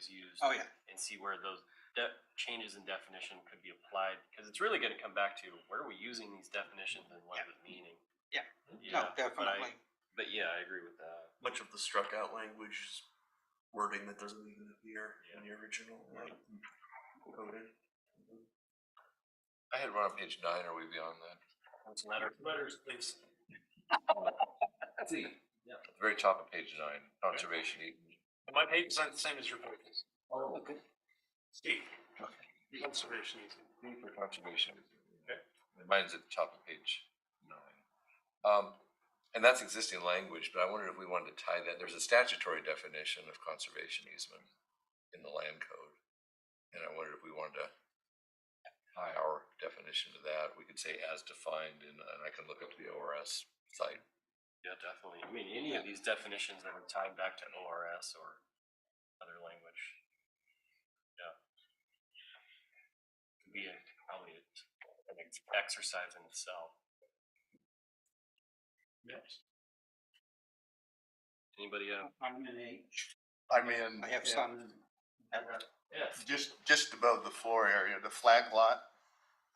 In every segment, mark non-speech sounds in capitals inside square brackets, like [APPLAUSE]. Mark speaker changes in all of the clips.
Speaker 1: is used
Speaker 2: Oh, yeah.
Speaker 1: and see where those de- changes in definition could be applied, because it's really gonna come back to where are we using these definitions and what is it meaning?
Speaker 2: Yeah. No,
Speaker 1: Yeah, but I-
Speaker 2: definitely.
Speaker 1: But yeah, I agree with that.
Speaker 3: Much of the struck out language is wording that doesn't even appear in the original. uh, coding.
Speaker 4: I had one on page nine, are we beyond that?
Speaker 1: Let's letter-
Speaker 5: Letters, please.
Speaker 4: See. At the very top of page nine, conservation easement.
Speaker 5: My pages aren't the same as your pages.
Speaker 4: Oh, okay.
Speaker 5: Steve. Conservation easement.
Speaker 4: D for conservation.
Speaker 5: Okay.
Speaker 4: Mine's at the top of page nine. Um, and that's existing language, but I wondered if we wanted to tie that, there's a statutory definition of conservation easement in the land code. And I wondered if we wanted to tie our definition to that, we could say as defined, and, and I can look up the ORS site.
Speaker 1: Yeah, definitely. I mean, any of these definitions that are tied back to ORS or other language. Yeah. Could be a, probably a- an ex- exercise in itself.
Speaker 5: Yes.
Speaker 1: Anybody have?
Speaker 2: I'm an H.
Speaker 6: I'm in.
Speaker 2: I have some.
Speaker 5: Yes.
Speaker 6: Just, just above the floor area, the flag lot,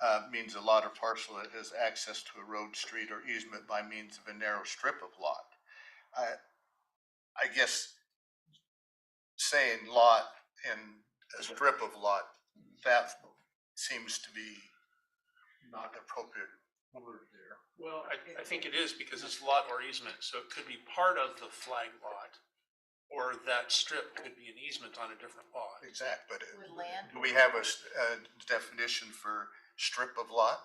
Speaker 6: uh, means a lot or parcel that has access to a road, street, or easement by means of a narrow strip of lot. I, I guess saying lot and a strip of lot, that seems to be not an appropriate word there.
Speaker 5: Well, I, I think it is because it's lot or easement, so it could be part of the flag lot. Or that strip could be an easement on a different lot.
Speaker 6: Exact, but it-
Speaker 7: With land,
Speaker 6: do we have a, s- a definition for strip of lot?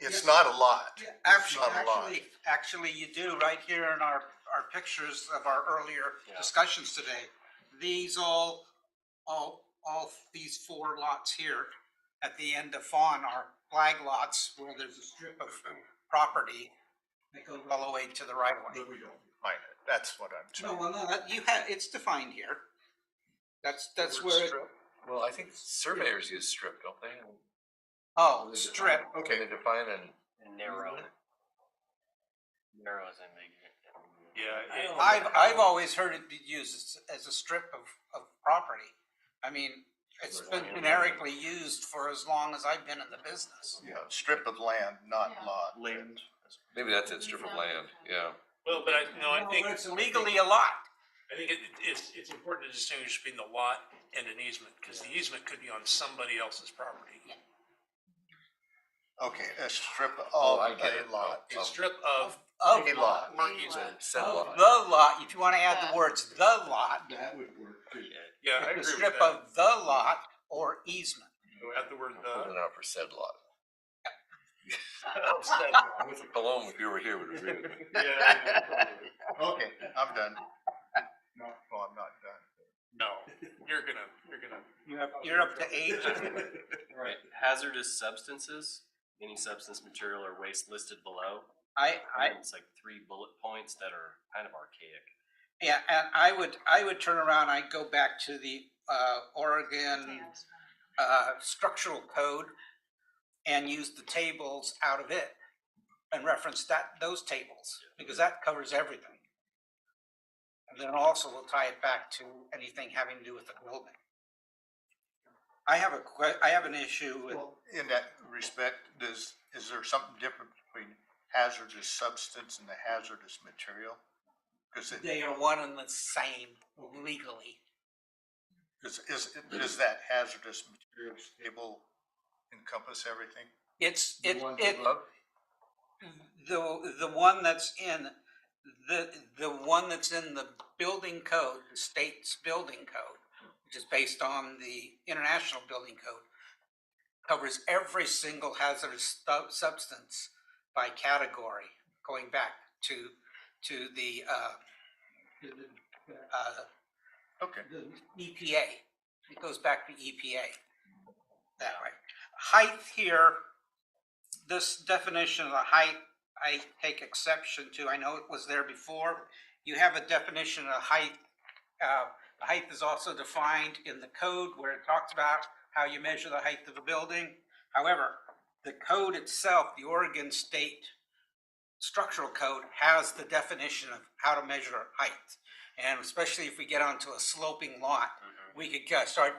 Speaker 6: It's not a lot.
Speaker 2: Yeah,
Speaker 6: It's
Speaker 2: Actually,
Speaker 6: not a lot.
Speaker 2: actually, actually you do, right here in our, our pictures of our earlier
Speaker 1: Yeah.
Speaker 2: discussions today. These all, all, all these four lots here at the end of Fawn are flag lots where there's a strip of property that goes all the way to the right of way.
Speaker 6: But we don't define it. That's what I'm
Speaker 2: No,
Speaker 6: trying.
Speaker 2: well, no, that- you have, it's defined here. That's, that's where, it-
Speaker 4: Well, I think surveyors use strip, don't they?
Speaker 2: oh, strip,
Speaker 4: Okay, they define and
Speaker 1: Narrow. Narrow is ambiguous.
Speaker 5: Yeah. it-
Speaker 2: I've, I've always heard it be used as, as a strip of, of property. I mean, it's been generically used for as long as I've been in the business.
Speaker 6: Yeah, uh, strip of land, not
Speaker 7: Yeah.
Speaker 6: lot.
Speaker 1: Land.
Speaker 4: maybe that's it, strip of land, yeah.
Speaker 5: Well, but I, no, I
Speaker 2: No,
Speaker 5: think.
Speaker 2: but It's legally a lot.
Speaker 5: I think it, it- it's, it's important to distinguish between the lot and an easement, because the easement could be on somebody else's property.
Speaker 6: Okay, a strip
Speaker 4: Oh,
Speaker 6: of
Speaker 4: I get
Speaker 6: a
Speaker 4: it.
Speaker 6: lot.
Speaker 4: Oh.
Speaker 5: A strip of,
Speaker 2: Of,
Speaker 6: A lot.
Speaker 5: or
Speaker 7: Main
Speaker 5: easement.
Speaker 7: lot.
Speaker 4: Said
Speaker 2: of
Speaker 4: lot.
Speaker 2: Uh, the lot, if you wanna add the words, the lot,
Speaker 6: That would work too.
Speaker 5: yeah, I agree
Speaker 2: the
Speaker 5: with
Speaker 2: strip
Speaker 5: that.
Speaker 2: of the lot or easement.
Speaker 5: Add the word uh,
Speaker 4: Pull
Speaker 2: [LAUGHS]
Speaker 5: the.
Speaker 4: that out for said lot.
Speaker 2: Oh,
Speaker 4: [LAUGHS] Cologne, if you were here, would agree with me.
Speaker 5: Yeah, yeah.
Speaker 6: Okay, I'm done. No, well, I'm not done.
Speaker 5: No, you're gonna, you're gonna.
Speaker 2: You're up, you're up to eight.
Speaker 1: Right, hazardous substances, any substance, material, or waste listed below.
Speaker 2: I, I,
Speaker 1: It's like three bullet points that are kind of archaic.
Speaker 2: yeah, and I would, I would turn around, I'd go back to the, uh, Oregon
Speaker 7: plans.
Speaker 2: uh, structural code and use the tables out of it and reference that, those tables, because that covers everything. And then also we'll tie it back to anything having to do with the building. I have a que, I have an issue with,
Speaker 6: Well, In that respect, does, is there something different between hazardous substance and the hazardous material? Cause it,
Speaker 2: they are one and the same legally.
Speaker 6: is, is, does that hazardous materials table encompass everything?
Speaker 2: It's, it,
Speaker 4: Ones
Speaker 2: it,
Speaker 4: above,
Speaker 2: the, the one that's in, the, the one that's in the building code, the state's building code, which is based on the international building code, covers every single hazardous stu- substance by category, going back to, to the, uh, to the, uh,
Speaker 6: Okay.
Speaker 2: the EPA, E it goes back to EPA. That way. Height here, this definition of the height, I take exception to, I know it was there before. You have a definition of height, uh, height is also defined in the code where it talks about how you measure the height of a building. However, the code itself, the Oregon State Structural Code, has the definition of how to measure height. And especially if we get onto a sloping
Speaker 1: Mhm.
Speaker 2: lot, Mm-hmm. we could get- start